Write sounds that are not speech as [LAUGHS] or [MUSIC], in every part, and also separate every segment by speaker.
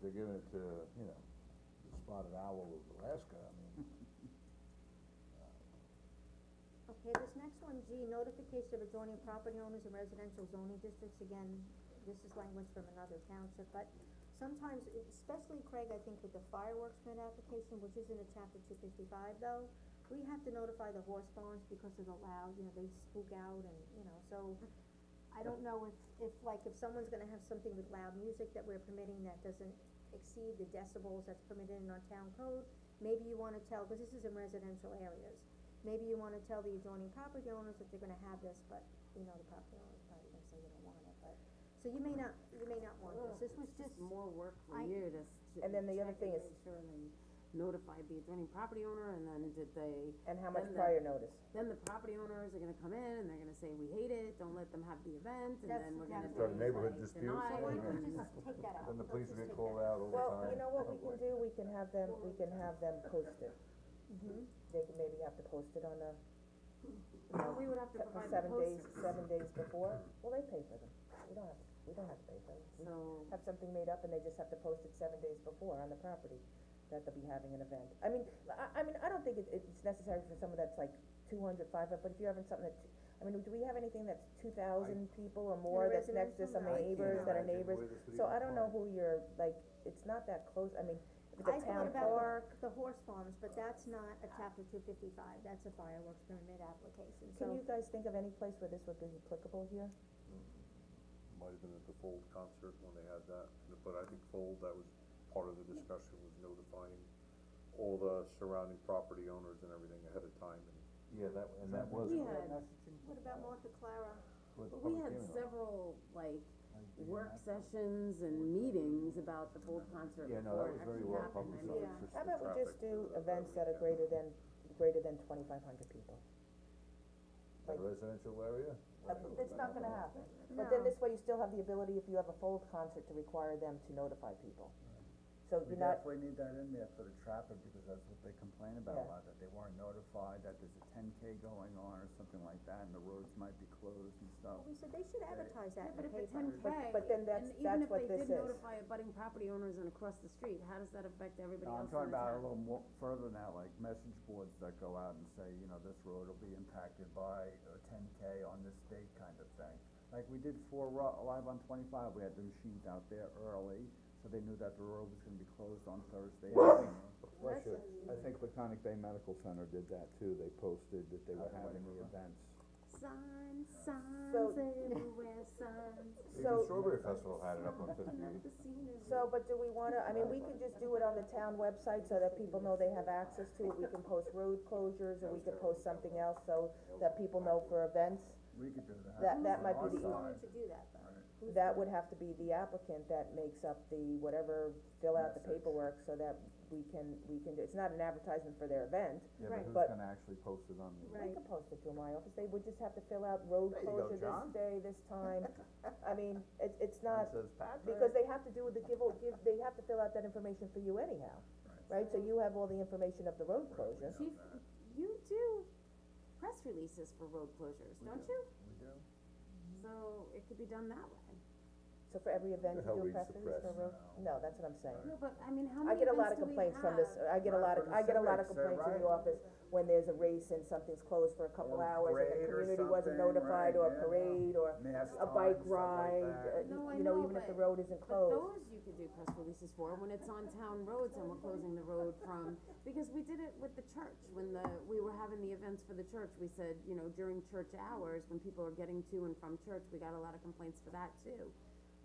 Speaker 1: they're giving it to, you know, the spotted owl of Alaska, I
Speaker 2: [LAUGHS]
Speaker 1: mean,
Speaker 3: Okay, this next one, G, notification of adjoining property owners in residential zoning districts, again, this is language from another township, but sometimes, especially Craig, I think with the fireworks permit application, which is in the chapter two fifty-five though, we have to notify the horse barns because of the loud, you know, they spook out and, you know, so I don't know if, if like, if someone's gonna have something with loud music that we're permitting that doesn't exceed the decibels that's permitted in our town code, maybe you wanna tell, cause this is in residential areas, maybe you wanna tell the adjoining property owners that they're gonna have this, but we know the property owners probably gonna say they don't want it, but, so you may not, you may not want this, this was just,
Speaker 4: More work for
Speaker 3: I-
Speaker 4: you to. s-
Speaker 2: And then the other
Speaker 4: check
Speaker 2: thing
Speaker 4: and
Speaker 2: is-
Speaker 4: Make sure they notified the adjoining property owner, and then did they,
Speaker 2: And how much
Speaker 4: Then the-
Speaker 2: prior notice?
Speaker 4: then the property owners are gonna come in, and they're gonna say, we hate it, don't let them have the event, and
Speaker 3: That's
Speaker 4: then we're gonna.
Speaker 3: exactly
Speaker 1: Start
Speaker 4: do
Speaker 1: neighborhood
Speaker 4: like
Speaker 1: disputes,
Speaker 3: so
Speaker 4: deny
Speaker 1: I
Speaker 3: why
Speaker 4: it,
Speaker 3: don't
Speaker 1: mean,
Speaker 3: we just take that out?
Speaker 1: then the
Speaker 3: Let's
Speaker 1: police
Speaker 3: just
Speaker 1: get
Speaker 3: take
Speaker 1: called
Speaker 3: that
Speaker 1: out all the time.
Speaker 2: Well, you know what
Speaker 1: [LAUGHS]
Speaker 2: we can do, Mm-hmm. we can have them, we can have them posted. They can maybe have to post it on the, you know,
Speaker 4: We would have to
Speaker 2: se-
Speaker 4: provide the
Speaker 2: seven days,
Speaker 4: posters.
Speaker 2: seven days before, well, they pay for them, we don't have, to we don't have to pay for them. We
Speaker 4: So,
Speaker 2: Have something made up and they just have to post it seven days before on the property, that they'll be having an event. I mean, I, I mean, I don't think it, it's necessary for someone that's like two hundred, five, but if you're having something that's, I mean, do we have anything that's two thousand people or more that's next
Speaker 3: residential,
Speaker 2: to some
Speaker 3: no. I can't
Speaker 2: neighbors that are
Speaker 1: imagine
Speaker 2: neighbors?
Speaker 1: where this would
Speaker 2: So
Speaker 1: even
Speaker 2: I don't know
Speaker 1: apply.
Speaker 2: who you're, like, it's not that close, I mean, if
Speaker 3: I
Speaker 2: it's a
Speaker 3: thought
Speaker 2: town
Speaker 3: about
Speaker 2: park,
Speaker 3: the, the horse farms, but that's not a chapter two fifty-five, that's a fireworks permit application,
Speaker 2: can you
Speaker 3: so.
Speaker 2: guys think of any place where this would be applicable here?
Speaker 5: Might have been at the Fold concert when they had that, but I think Fold, that was part of the discussion, was notifying all the surrounding property owners and everything ahead of time, and
Speaker 1: Yeah, that, and that was,
Speaker 4: we
Speaker 1: what
Speaker 4: had,
Speaker 3: What about Martha Clara?
Speaker 1: the
Speaker 4: we
Speaker 1: public
Speaker 4: had
Speaker 1: hearing was.
Speaker 4: several, like, work sessions and meetings about the Fold concert
Speaker 1: Yeah, no,
Speaker 4: before
Speaker 1: that was
Speaker 4: it
Speaker 1: very
Speaker 4: actually
Speaker 1: well
Speaker 4: happened, I mean,
Speaker 1: publicized,
Speaker 3: Yeah.
Speaker 1: just
Speaker 2: How
Speaker 1: the
Speaker 2: about we just
Speaker 5: traffic,
Speaker 2: do
Speaker 5: uh,
Speaker 2: events that are
Speaker 5: every
Speaker 2: greater than, greater than twenty-five hundred people?
Speaker 1: the residential area.
Speaker 2: Uh,
Speaker 1: whatever,
Speaker 2: It's not gonna
Speaker 1: whatever.
Speaker 2: happen, but then
Speaker 3: No.
Speaker 2: this way you still have the ability, if you have a fold concert, to require them to notify people. So
Speaker 6: We
Speaker 2: you're not,
Speaker 6: definitely need that in there for the traffic, because that's what they complain about a
Speaker 2: Yeah.
Speaker 6: lot, that they weren't notified, that there's a ten K going on or something like that, and the roads might be closed and stuff.
Speaker 3: Well, Oh, we said they should advertise that
Speaker 4: Yeah, but
Speaker 3: in the
Speaker 4: if it's
Speaker 3: paper.
Speaker 4: ten K,
Speaker 2: but then that's-
Speaker 4: and even
Speaker 2: that's
Speaker 4: if
Speaker 2: what
Speaker 4: they
Speaker 2: this
Speaker 4: did
Speaker 2: is.
Speaker 4: notify abutting property owners and across the street, how does that affect everybody
Speaker 6: Now, I'm
Speaker 4: else in the
Speaker 6: talking about a
Speaker 4: town?
Speaker 6: little more further now, like message boards that go out and say, you know, this road will be impacted by a ten K on this date kind of thing. Like we did for Ro- Live on twenty-five, we had the machines out there early, so they knew that the road was gonna be closed on Thursday evening.
Speaker 1: Russia,
Speaker 7: I think Laconic Bay Medical Center did that too, they posted that they were
Speaker 6: Uh,
Speaker 7: having the
Speaker 6: whatever.
Speaker 7: events.
Speaker 4: Signs, signs
Speaker 2: So-
Speaker 4: everywhere, signs,
Speaker 1: even
Speaker 2: so,
Speaker 1: Strawberry Festival had it up on fifty,
Speaker 4: looking up the scenery.
Speaker 2: so, but do we wanna, I mean, we could just do it on the town website so that people know they have access to it, we can post road closures, or we could post something else, so that people know for events.
Speaker 6: We could do that.
Speaker 2: That- that
Speaker 6: on
Speaker 2: might be
Speaker 6: our
Speaker 2: the
Speaker 3: Who's going
Speaker 6: side.
Speaker 3: to do that though? Who's
Speaker 2: That would have to be the applicant that makes up the whatever, fill out the
Speaker 6: Message.
Speaker 2: paperwork so that we can, we can, do- it's not an advertisement for their event.
Speaker 6: Yeah,
Speaker 3: Right.
Speaker 6: but who's
Speaker 2: But-
Speaker 6: gonna actually post it on the?
Speaker 2: We could post it to my office, they would just have to fill out road
Speaker 1: There you go,
Speaker 2: closure this
Speaker 1: John.
Speaker 2: day, this time,
Speaker 1: [LAUGHS]
Speaker 2: I mean, it's, it's
Speaker 1: and
Speaker 2: not,
Speaker 1: says Patrick.
Speaker 2: because they have to do the give, give, they have to fill out that information for you anyhow, right? So you have all the information of the road closure.
Speaker 4: Chief, you do press releases for road closures, don't you?
Speaker 6: We do.
Speaker 4: So it could be done that way.
Speaker 2: So for every event, you
Speaker 1: Hell
Speaker 2: do a
Speaker 1: reads
Speaker 2: press
Speaker 1: the
Speaker 2: release for
Speaker 1: press.
Speaker 2: road, no, that's what I'm saying.
Speaker 4: No, but I mean, how
Speaker 2: I
Speaker 4: many
Speaker 2: get a lot
Speaker 4: events do we
Speaker 2: of complaints from this, uh,
Speaker 4: have?
Speaker 2: I get a
Speaker 6: Right,
Speaker 2: lot of,
Speaker 6: from the
Speaker 2: I get a lot of
Speaker 6: civics, they're
Speaker 2: complaints in the
Speaker 6: right.
Speaker 2: office when there's a race and something's closed for a couple
Speaker 6: Or
Speaker 2: hours and the
Speaker 6: parade or
Speaker 2: community wasn't
Speaker 6: something,
Speaker 2: notified, or
Speaker 6: right,
Speaker 2: a
Speaker 6: yeah.
Speaker 2: parade, or
Speaker 6: Mass times,
Speaker 2: a bike
Speaker 6: stuff like
Speaker 2: ride,
Speaker 6: that.
Speaker 2: uh,
Speaker 4: No, I
Speaker 2: you know,
Speaker 4: know,
Speaker 2: even if the
Speaker 4: but-
Speaker 2: road isn't
Speaker 4: But
Speaker 2: closed.
Speaker 4: those you could do press releases for, when it's on town roads and we're closing the road from, because we did it with the church, when the, we were having the events for the church, we said, you know, during church hours, when people are getting to and from church, we got a lot of complaints for that too,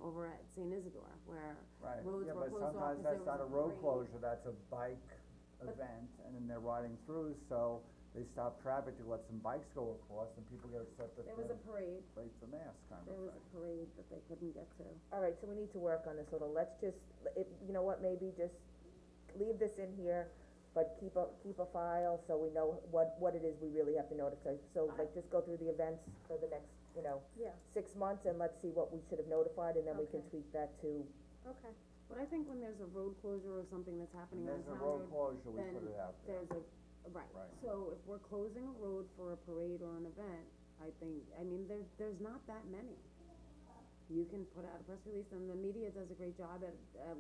Speaker 4: over at Saint Isidore, where
Speaker 6: Right,
Speaker 4: roads
Speaker 6: yeah,
Speaker 4: were
Speaker 6: but sometimes
Speaker 4: closed off 'cause there was a parade.
Speaker 6: that's not a road closure, that's a bike event, and then they're riding through, so they stop traffic to let some bikes go across, and people get upset that
Speaker 4: There was a
Speaker 6: they're
Speaker 4: parade,
Speaker 6: late for mass kind of
Speaker 4: there was
Speaker 6: thing.
Speaker 4: a parade that they couldn't get to.
Speaker 2: Alright, so we need to work on this a little, let's just, if, you know what, maybe just leave this in here, but keep a, keep a file so we know what, what it is we really have to notify. So like, just go through the events for the next, you know,
Speaker 3: Yeah,
Speaker 2: six months and let's see what we should have notified and then we can
Speaker 3: Okay.
Speaker 2: tweak that to,
Speaker 3: okay.
Speaker 4: But I think when there's a road closure or something that's happening
Speaker 6: And
Speaker 4: on
Speaker 6: there's a
Speaker 4: town
Speaker 6: road
Speaker 4: road,
Speaker 6: closure, we
Speaker 4: then
Speaker 6: put it out there.
Speaker 4: there's a, right,
Speaker 6: Right.
Speaker 4: so if we're closing a road for a parade or an event, I think, I mean, there's, there's not that many. You can put out a press release, and the media does a great job at, at